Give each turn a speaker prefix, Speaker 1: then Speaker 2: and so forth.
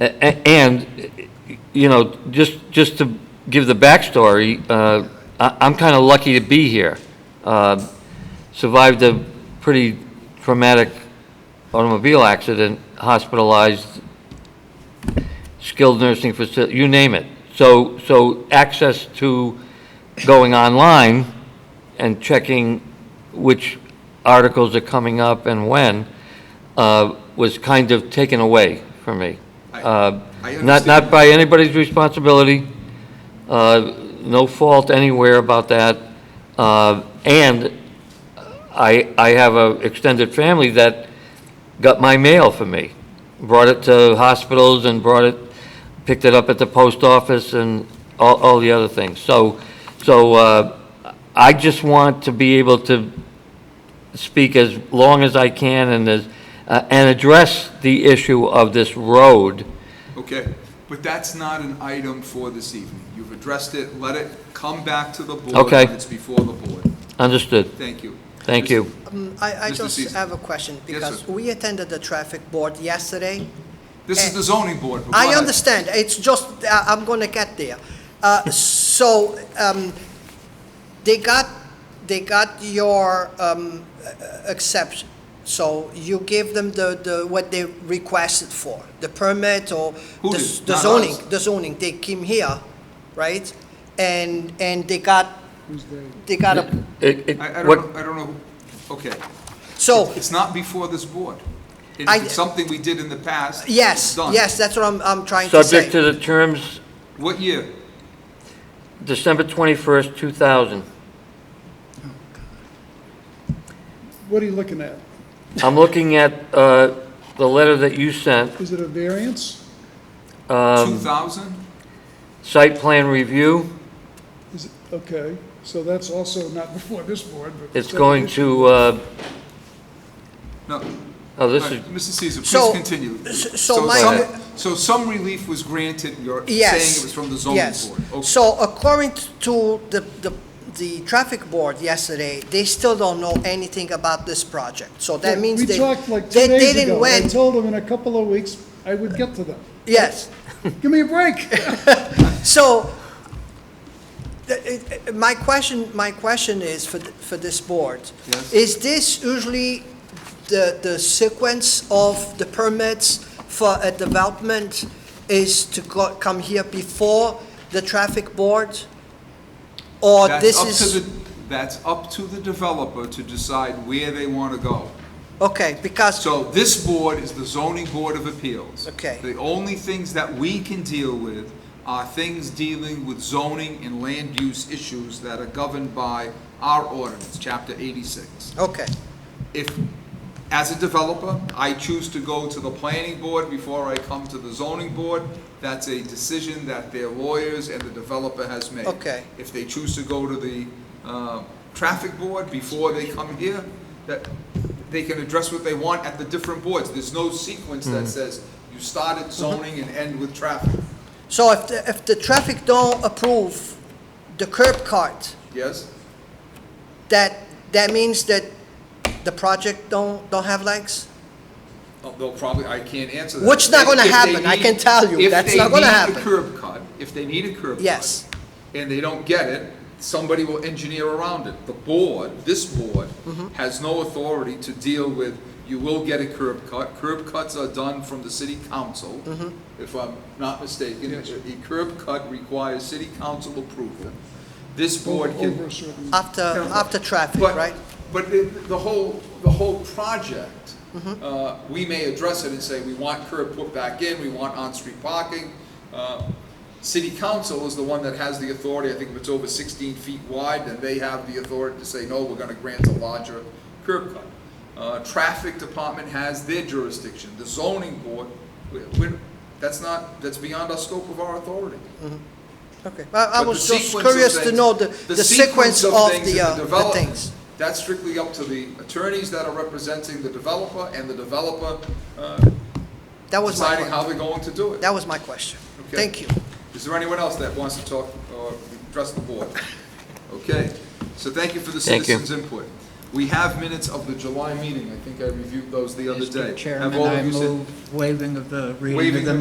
Speaker 1: A- a- And, you know, just, just to give the backstory, uh, I- I'm kind of lucky to be here. Uh, Survived a pretty traumatic automobile accident, hospitalized, skilled nursing facility, you name it. So, so access to going online and checking which articles are coming up and when uh, was kind of taken away from me.
Speaker 2: I-
Speaker 1: Uh,
Speaker 2: I
Speaker 1: Not, not
Speaker 2: understand.
Speaker 1: by anybody's responsibility, uh, no fault anywhere about that. Uh, And I, I have a extended family that got my mail for me, brought it to hospitals and brought it, picked it up at the post office and all, all the other things. So, so uh, I just want to be able to speak as long as I can and as, uh, and address the issue of this road.
Speaker 2: Okay, but that's not an item for this evening. You've addressed it, let it come back to the board.
Speaker 1: Okay.
Speaker 2: when It's before the board.
Speaker 1: Understood.
Speaker 2: Thank you.
Speaker 1: Thank you.
Speaker 3: Um, I, I
Speaker 2: Mr.
Speaker 3: just
Speaker 2: Cease.
Speaker 3: have a question, because
Speaker 2: sir.
Speaker 3: we attended the traffic board yesterday.
Speaker 2: This is the zoning board. but go
Speaker 3: I
Speaker 2: ahead.
Speaker 3: understand, it's just, I- I'm gonna get there. Uh, so, um, they got, they got your, um, exception. So you give them the, the, what they requested for, the permit or
Speaker 2: Who
Speaker 3: the
Speaker 2: did?
Speaker 3: s- the
Speaker 2: Not
Speaker 3: zoning,
Speaker 2: us.
Speaker 3: the zoning, they came here, right? And, and they got, they got a,
Speaker 1: It- it-
Speaker 2: I, I
Speaker 1: what-
Speaker 2: don't, know- I don't know, who- okay.
Speaker 3: so,
Speaker 2: It's not before this board. And
Speaker 3: I-
Speaker 2: If it's something we did in the past. it's
Speaker 3: yes,
Speaker 2: done.
Speaker 3: yes, that's what I'm, I'm trying to say.
Speaker 1: Subject to the terms
Speaker 2: What year?
Speaker 1: December 21st, 2000.
Speaker 4: What are you looking at?
Speaker 1: I'm looking at uh, the letter that you sent,
Speaker 4: Is it a variance?
Speaker 1: Um,
Speaker 2: Two thousand?
Speaker 1: site plan review.
Speaker 4: Is it, okay, so that's also not before this board, but.
Speaker 1: It's going to, uh,
Speaker 2: No.
Speaker 1: oh,
Speaker 2: All
Speaker 1: this is,
Speaker 2: right, Mr. Caesar, please
Speaker 3: So-
Speaker 2: continue.
Speaker 3: s- so my-
Speaker 2: some- So some relief was granted, you're saying
Speaker 3: Yes.
Speaker 2: it was from the zoning
Speaker 3: yes.
Speaker 2: board. Okay.
Speaker 3: So according to the, the, the traffic board yesterday, they still don't know anything about this project. So that means they,
Speaker 4: We talked like
Speaker 3: they
Speaker 4: two days
Speaker 3: didn't
Speaker 4: ago. I
Speaker 3: went,
Speaker 4: told them in a couple of weeks I would get to them.
Speaker 3: yes.
Speaker 4: Give me a break.
Speaker 3: So, the- it- it- my question, my question is for, th- for this board.
Speaker 2: Yes.
Speaker 3: Is this usually the, the sequence of the permits for a development is to go, come here before the traffic board? Or
Speaker 2: That's
Speaker 3: Oh, this
Speaker 2: up
Speaker 3: is?
Speaker 2: to the- That's up to the developer to decide where they want to go.
Speaker 3: Okay, because,
Speaker 2: So this board is the zoning board of appeals.
Speaker 3: Okay.
Speaker 2: The only things that we can deal with are things dealing with zoning and land use issues that are governed by our ordinance, chapter eighty-six.
Speaker 3: okay,
Speaker 2: If, as a developer, I choose to go to the planning board before I come to the zoning board, that's a decision that their lawyers and the developer has made.
Speaker 3: Okay.
Speaker 2: If they choose to go to the, uh, traffic board before they come here, that, they can address what they want at the different boards. There's no sequence that says you start at zoning and end with traffic,
Speaker 3: so if, the if the traffic don't approve the curb cut,
Speaker 2: yes?
Speaker 3: that, that means that the project don't, don't have legs?
Speaker 2: Oh, They'll probably, I can't answer that.
Speaker 3: Which is not gonna
Speaker 2: If- if they
Speaker 3: happen, I
Speaker 2: need-
Speaker 3: can tell you,
Speaker 2: if
Speaker 3: that's
Speaker 2: they
Speaker 3: not gonna
Speaker 2: need a
Speaker 3: happen.
Speaker 2: curb cut, if they need a curb cut.
Speaker 3: Yes.
Speaker 2: And they don't get it, somebody will engineer around it. The board, this board,
Speaker 3: Mm-hmm.
Speaker 2: has no authority to deal with, you will get a curb cut. Curb cuts are done from the city council,
Speaker 3: Mm-hmm.
Speaker 2: if I'm not mistaken. A curb cut requires city council approval. This board can.
Speaker 4: Over a certain-
Speaker 3: After, after traffic,
Speaker 2: But-
Speaker 3: right?
Speaker 2: But the, the whole, the whole project, uh, we may address it and say, we want curb put back in, we want on-street parking. Uh, City council is the one that has the authority, I think if it's over sixteen feet wide, then they have the authority to say, no, we're gonna grant a larger curb cut. Uh, Traffic department has their jurisdiction, the zoning board, we, we, that's not, that's beyond our scope of our authority.
Speaker 3: Okay, I, I
Speaker 2: But the
Speaker 3: was just
Speaker 2: sequence of
Speaker 3: curious to
Speaker 2: things-
Speaker 3: know the, the sequence of
Speaker 2: things
Speaker 3: the,
Speaker 2: and
Speaker 3: uh, the
Speaker 2: development,
Speaker 3: things.
Speaker 2: That's strictly up to the attorneys that are representing the developer and the developer uh,
Speaker 3: That was my,
Speaker 2: deciding how
Speaker 3: que-
Speaker 2: they're going to do it.
Speaker 3: that was my question.
Speaker 2: Okay.
Speaker 3: Thank you.
Speaker 2: Is there anyone else that wants to talk or address the board? Okay, so thank you for the
Speaker 1: Thank you.
Speaker 2: citizens' input. We have minutes of the July meeting, I think I reviewed those the other day.
Speaker 5: Mr.
Speaker 2: Have
Speaker 5: Chairman,
Speaker 2: all of
Speaker 5: I
Speaker 2: you said-
Speaker 5: move waiving of the reading of
Speaker 2: Waiving
Speaker 5: the
Speaker 2: the